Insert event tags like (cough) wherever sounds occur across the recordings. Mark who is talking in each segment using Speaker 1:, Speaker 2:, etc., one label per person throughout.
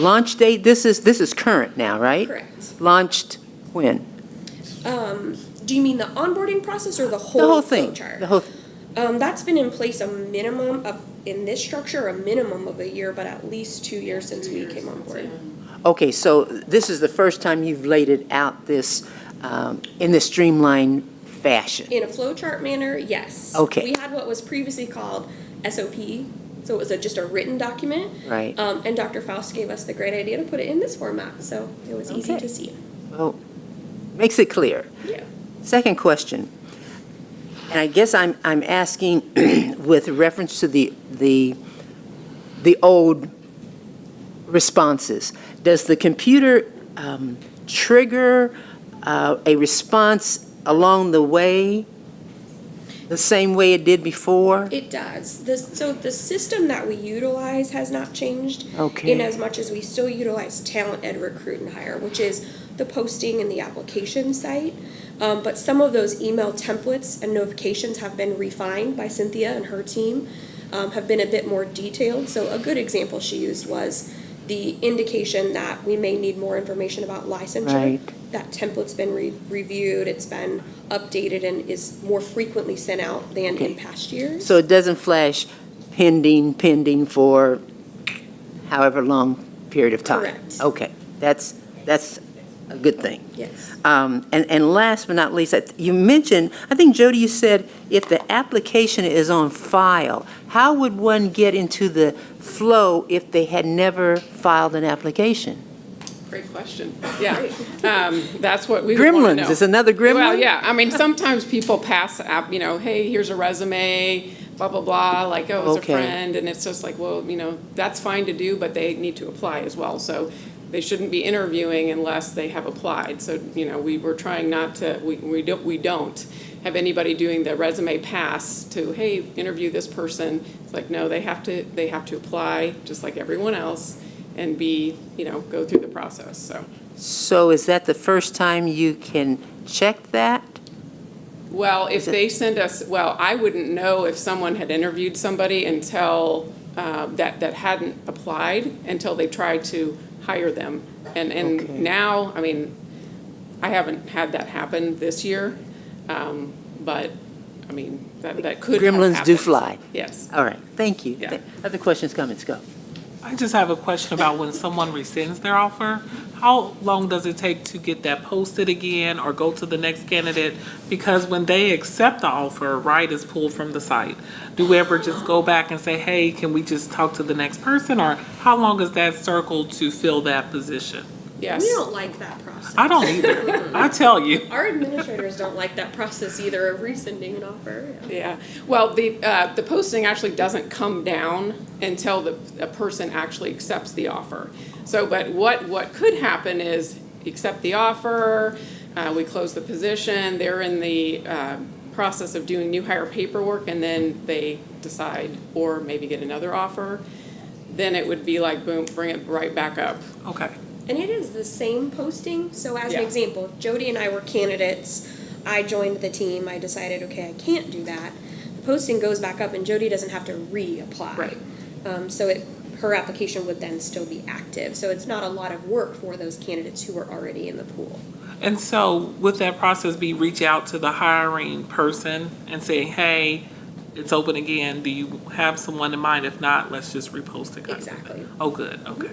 Speaker 1: Launch date, this is, this is current now, right?
Speaker 2: Correct.
Speaker 1: Launched when?
Speaker 2: Um, do you mean the onboarding process or the whole,
Speaker 1: The whole thing?
Speaker 2: flow chart?
Speaker 1: The whole,
Speaker 2: Um, that's been in place a minimum of, in this structure, a minimum of a year, but at least two years since we came on board.
Speaker 1: okay, so this is the first time you've laid it out this, um, in this streamlined fashion?
Speaker 2: In a flow chart manner, yes.
Speaker 1: Okay.
Speaker 2: We had what was previously called SOP, so it was a, just a written document.
Speaker 1: Right.
Speaker 2: Um, and Dr. Faust gave us the great idea to put it in this format, so it was easy
Speaker 1: Okay.
Speaker 2: to see.
Speaker 1: Well, makes it clear.
Speaker 2: Yeah.
Speaker 1: Second question, and I guess I'm, I'm asking (clears throat) with reference to the, the, the old responses. Does the computer um, trigger uh, a response along the way, the same way it did before?
Speaker 2: It does. This, so the system that we utilize has not changed.
Speaker 1: Okay.
Speaker 2: In as much as we still utilize Talent Ed Recruit and Hire, which is the posting and the application site. Um, but some of those email templates and notifications have been refined by Cynthia and her team, um, have been a bit more detailed. So a good example she used was the indication that we may need more information about licensure.
Speaker 1: Right.
Speaker 2: That template's been re- reviewed, it's been updated and is more frequently sent out than in past years.
Speaker 1: So it doesn't flash pending, pending for however long period of time?
Speaker 2: Correct.
Speaker 1: Okay, that's, that's a good thing.
Speaker 2: Yes.
Speaker 1: Um, And, and last but not least, I th- you mentioned, I think, Jody, you said if the application is on file, how would one get into the flow if they had never filed an application?
Speaker 3: Great question. Yeah, um, that's what we would wanna
Speaker 1: Gremlins,
Speaker 3: know.
Speaker 1: it's another
Speaker 3: Well,
Speaker 1: gremlin?
Speaker 3: yeah, I mean, sometimes people pass app, you know, hey, here's a resume, blah, blah, blah, like, oh, it's a
Speaker 1: Okay.
Speaker 3: friend, and it's just like, well, you know, that's fine to do, but they need to apply as well, so they shouldn't be interviewing unless they have applied, so, you know, we were trying not to, we, we don't, we don't have anybody doing the resume pass to, hey, interview this person, it's like, no, they have to, they have to apply, just like everyone else, and be, you know, go through the process, so.
Speaker 1: So is that the first time you can check that?
Speaker 3: Well, if they send us, well, I wouldn't know if someone had interviewed somebody until, uh, that, that hadn't applied, until they tried to hire them. And,
Speaker 1: Okay.
Speaker 3: and now, I mean, I haven't had that happen this year, um, but, I mean, that, that could have
Speaker 1: Gremlins do
Speaker 3: happened.
Speaker 1: fly.
Speaker 3: Yes.
Speaker 1: All right, thank you.
Speaker 3: Yeah.
Speaker 1: Other questions, comments, go.
Speaker 4: I just have a question about when someone rescinds their offer, how long does it take to get that posted again or go to the next candidate? Because when they accept the offer, right, is pulled from the site. Do we ever just go back and say, hey, can we just talk to the next person? Or how long is that circle to fill that position?
Speaker 3: Yes.
Speaker 2: We don't like that process.
Speaker 4: I don't either. I tell you.
Speaker 2: Our administrators don't like that process either of rescinding an offer. yeah.
Speaker 3: Yeah, well, the, uh, the posting actually doesn't come down until the, a person actually accepts the offer. So, but what, what could happen is, accept the offer, uh, we close the position, they're in the, uh, process of doing new hire paperwork, and then they decide, or maybe get another offer, then it would be like, boom, bring it right back up.
Speaker 4: Okay.
Speaker 2: And it is the same posting. So, as an
Speaker 3: Yeah.
Speaker 2: example, if Jody and I were candidates. I joined the team. I decided, okay, I can't do that. The posting goes back up, and Jody doesn't have to reapply.
Speaker 3: Right.
Speaker 2: Um, so it, her application would then still be active. So it's not a lot of work for those candidates who are already in the pool.
Speaker 4: And so would that process be reach out to the hiring person and say, hey, it's open again. Do you have someone in mind? If not, let's just repost it. kind of thing?
Speaker 2: Exactly.
Speaker 4: Oh, good, okay.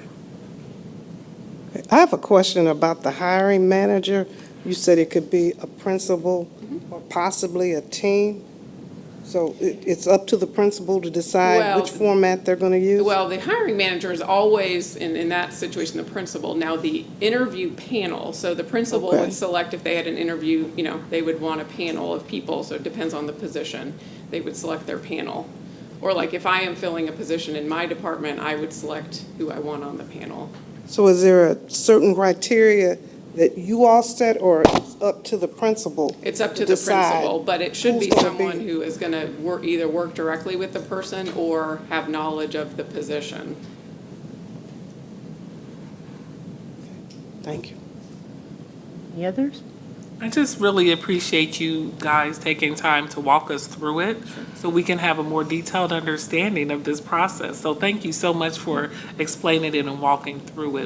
Speaker 5: I have a question about the hiring manager. You said it could be a principal or possibly a team. So it, it's up to the principal to decide which
Speaker 3: Well-
Speaker 5: format they're gonna use?
Speaker 3: Well, the hiring manager is always, in, in that situation, the principal. Now, the interview panel, so the principal
Speaker 5: Okay.
Speaker 3: would select if they had an interview, you know, they would want a panel of people, so it depends on the position. They would select their panel. Or like if I am filling a position in my department, I would select who I want on the panel.
Speaker 5: So is there a certain criteria that you all set or it's up to the principal?
Speaker 3: It's up to
Speaker 5: to
Speaker 3: the
Speaker 5: decide
Speaker 3: principal, but it should be
Speaker 5: who's gonna
Speaker 3: someone
Speaker 5: be-
Speaker 3: who is gonna work, either work directly with the person or have knowledge of the position.
Speaker 5: Thank you.
Speaker 1: Any others?
Speaker 4: I just really appreciate you guys taking time to walk us through it so we can have a more detailed understanding of this process. So thank you so much for explaining it and walking through it.